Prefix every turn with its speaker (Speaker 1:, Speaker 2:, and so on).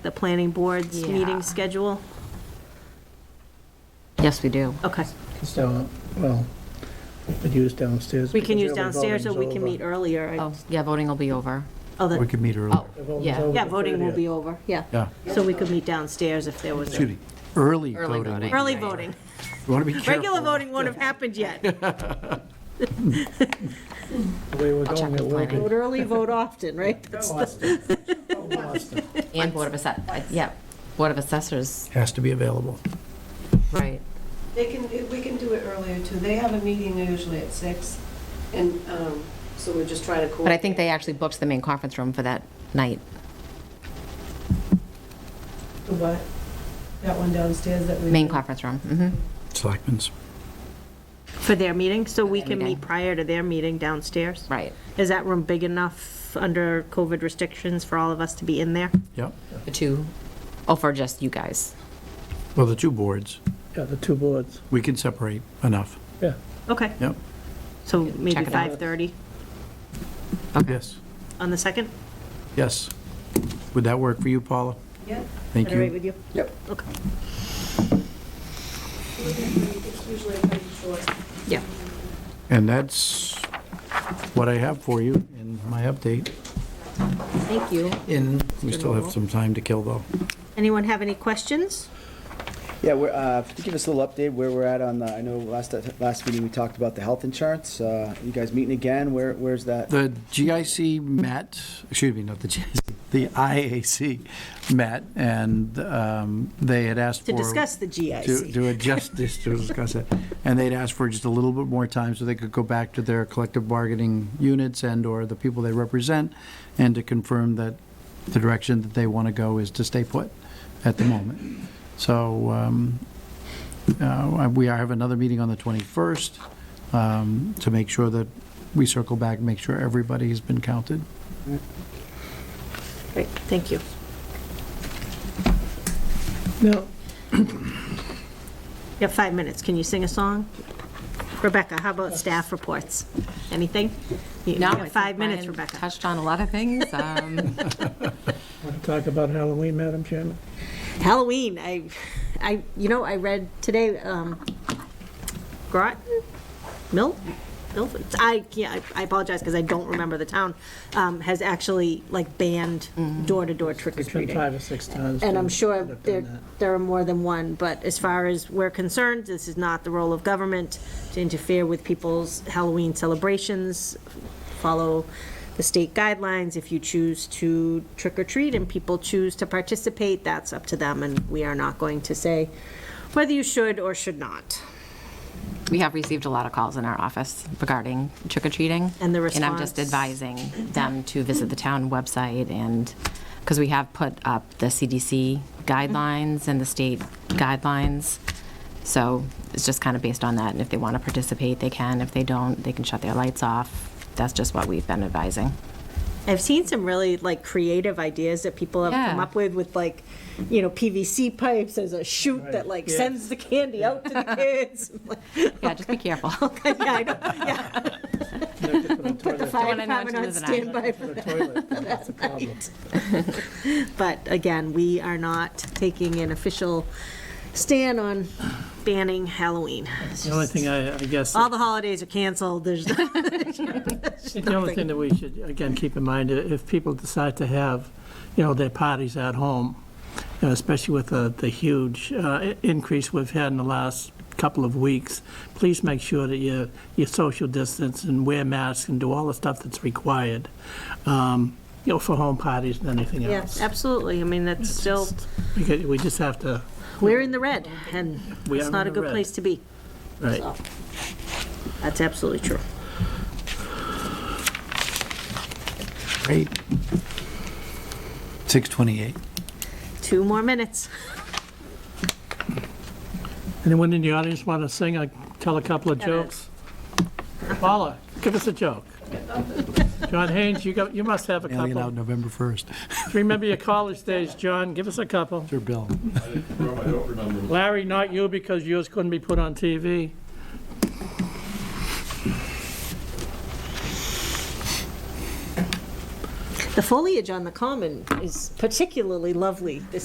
Speaker 1: the planning board's
Speaker 2: Yeah.
Speaker 1: meeting schedule?
Speaker 2: Yes, we do.
Speaker 1: Okay.
Speaker 3: It's down, well, we could use downstairs.
Speaker 1: We can
Speaker 3: because
Speaker 1: use
Speaker 3: really
Speaker 1: downstairs or
Speaker 3: voting's
Speaker 1: we can
Speaker 3: over.
Speaker 1: meet earlier. I-
Speaker 2: Oh, yeah, voting will be over.
Speaker 1: Oh,
Speaker 4: We
Speaker 1: that,
Speaker 4: could meet earlier.
Speaker 2: Oh,
Speaker 3: The voting's
Speaker 2: yeah.
Speaker 3: over.
Speaker 1: yeah, voting will be over, yeah.
Speaker 4: Yeah,
Speaker 1: So we could meet downstairs if there was,
Speaker 4: excuse me, early
Speaker 2: Early
Speaker 4: voting.
Speaker 2: voting.
Speaker 1: early voting.
Speaker 4: You want to be careful.
Speaker 1: Regular voting won't have happened yet.
Speaker 3: The way we're
Speaker 2: check
Speaker 3: going,
Speaker 2: with
Speaker 3: it will be.
Speaker 2: planning.
Speaker 1: Vote early, vote often, right? That's the-
Speaker 3: Boston.
Speaker 2: And Board of Assess, yeah, Board of Assessors,
Speaker 4: Has to be available.
Speaker 2: right.
Speaker 5: They can, we can do it earlier too. They have a meeting usually at six, and um, so we're just trying to coordinate.
Speaker 2: But I think they actually booked the main conference room for that night.
Speaker 5: The what? That one downstairs that we.
Speaker 2: Main conference room, hmm
Speaker 4: Selectmen's.
Speaker 1: For their meeting, so we can
Speaker 2: Every
Speaker 1: meet
Speaker 2: day.
Speaker 1: prior to their meeting downstairs?
Speaker 2: right.
Speaker 1: Is that room big enough under COVID restrictions for all of us to be in there?
Speaker 4: Yep.
Speaker 2: The two, oh, for just you guys.
Speaker 4: Well, the two boards,
Speaker 3: Yeah, the two boards,
Speaker 4: we can separate enough.
Speaker 3: yeah.
Speaker 1: Okay,
Speaker 4: Yep.
Speaker 1: so maybe
Speaker 2: it out.
Speaker 1: 5:30
Speaker 4: Yes.
Speaker 1: on the 2nd?
Speaker 4: Yes. Would that work for you, Paula?
Speaker 5: Yeah.
Speaker 4: Thank
Speaker 1: All right with
Speaker 4: you.
Speaker 1: you? Yep. Okay.
Speaker 5: It's usually pretty short.
Speaker 2: Yeah.
Speaker 4: And that's what I have for you in my update.
Speaker 2: Thank you.
Speaker 4: And we still have some time to kill, though.
Speaker 1: Anyone have any questions?
Speaker 6: Yeah, we're, uh, to give us a little update where we're at on, the- I know last, last meeting we talked about the health insurance. Uh, You guys meeting again? Where, where's that?
Speaker 4: The GIC met, excuse me, not the GIC, the IAC met, and um, they had asked for...
Speaker 1: To discuss the
Speaker 4: to,
Speaker 1: GIC?
Speaker 4: to adjust this, to discuss it. And they'd asked for just a little bit more time so they could go back to their collective bargaining units and/or the people they represent, and to confirm that the direction that they want to go is to stay put at the moment. So um, uh, we have another meeting on the 21st um, to make sure that we circle back, make sure everybody has been counted.
Speaker 1: Great, thank you.
Speaker 3: Now,
Speaker 1: You have five minutes, can you sing a song? Rebecca, how about staff reports? Anything? You
Speaker 2: No, I
Speaker 1: have
Speaker 2: think
Speaker 1: five minutes,
Speaker 2: Brian
Speaker 1: Rebecca.
Speaker 2: Touched on a lot of things. Um,
Speaker 3: want to talk about Halloween, Madam Chairman?
Speaker 1: Halloween, I, I, you know, I read today, um, Groton, Mil, Milford, I, yeah, I apologize because I don't remember the town, um, has actually like banned
Speaker 2: Mm-hmm.
Speaker 1: door-to-door
Speaker 3: It's been
Speaker 1: trick-or-treating.
Speaker 3: five or six times.
Speaker 1: And I'm
Speaker 3: we've-
Speaker 1: sure
Speaker 3: we've done
Speaker 1: there,
Speaker 3: that.
Speaker 1: there are more than one, but as far as we're concerned, this is not the role of government to interfere with people's Halloween celebrations. Follow the state guidelines. If you choose to trick or treat and people choose to participate, that's up to them, and we are not going to say whether you should or should not.
Speaker 2: We have received a lot of calls in our office regarding trick-or-treating.
Speaker 1: And the
Speaker 2: And I'm just
Speaker 1: response?
Speaker 2: advising them to visit the town website and, because we have put up the CDC guidelines and the state guidelines. So it's just kind of based on that, and if they want to participate, they can. If they don't, they can shut their lights off. That's just what we've been advising.
Speaker 1: I've seen some really like creative ideas that people have come
Speaker 2: Yeah.
Speaker 1: up with, with like, you know, PVC pipes as a chute that like sends the candy out to the kids.
Speaker 2: Yeah, just be careful.
Speaker 1: Yeah, I know, yeah.
Speaker 3: You have to put a
Speaker 1: Put the
Speaker 3: toilet-
Speaker 1: fire
Speaker 2: Don't wanna know
Speaker 1: department on
Speaker 2: what to do with
Speaker 1: standby,
Speaker 3: put a toilet, then that's a problem.
Speaker 1: but again, we are not taking an official stand on banning Halloween. It's
Speaker 3: The only
Speaker 1: just-
Speaker 3: thing I, I guess.
Speaker 1: All the holidays are canceled, there's,
Speaker 3: I think The only thing that we should, again, keep in mind, if people decide to have, you know, their parties at home, you know, especially with the, the huge uh, increase we've had in the last couple of weeks, please make sure that you, you social distance and wear masks and do all the stuff that's required, um, you know, for home parties and anything
Speaker 1: yeah,
Speaker 3: else.
Speaker 1: absolutely, I mean, that's still,
Speaker 3: We could- We just have to,
Speaker 1: we're in the red, and
Speaker 3: We
Speaker 1: it's
Speaker 3: are
Speaker 1: not
Speaker 3: in
Speaker 1: a
Speaker 3: the
Speaker 1: good
Speaker 3: red.
Speaker 1: place to be,
Speaker 3: right.
Speaker 1: so, that's absolutely true.
Speaker 4: Great. 6:28.
Speaker 1: Two more minutes.
Speaker 3: Anyone in the audience want to sing or tell a couple of jokes? Paula, give us a joke. John Haynes, you got, you must have a
Speaker 4: Alien out
Speaker 3: couple.
Speaker 4: November 1st.
Speaker 3: Remember your college days, John, give us a couple.
Speaker 4: Sir Bill.
Speaker 7: I don't remember.
Speaker 3: Larry, not you, because yours couldn't be put on TV.
Speaker 1: The foliage on the common is particularly lovely this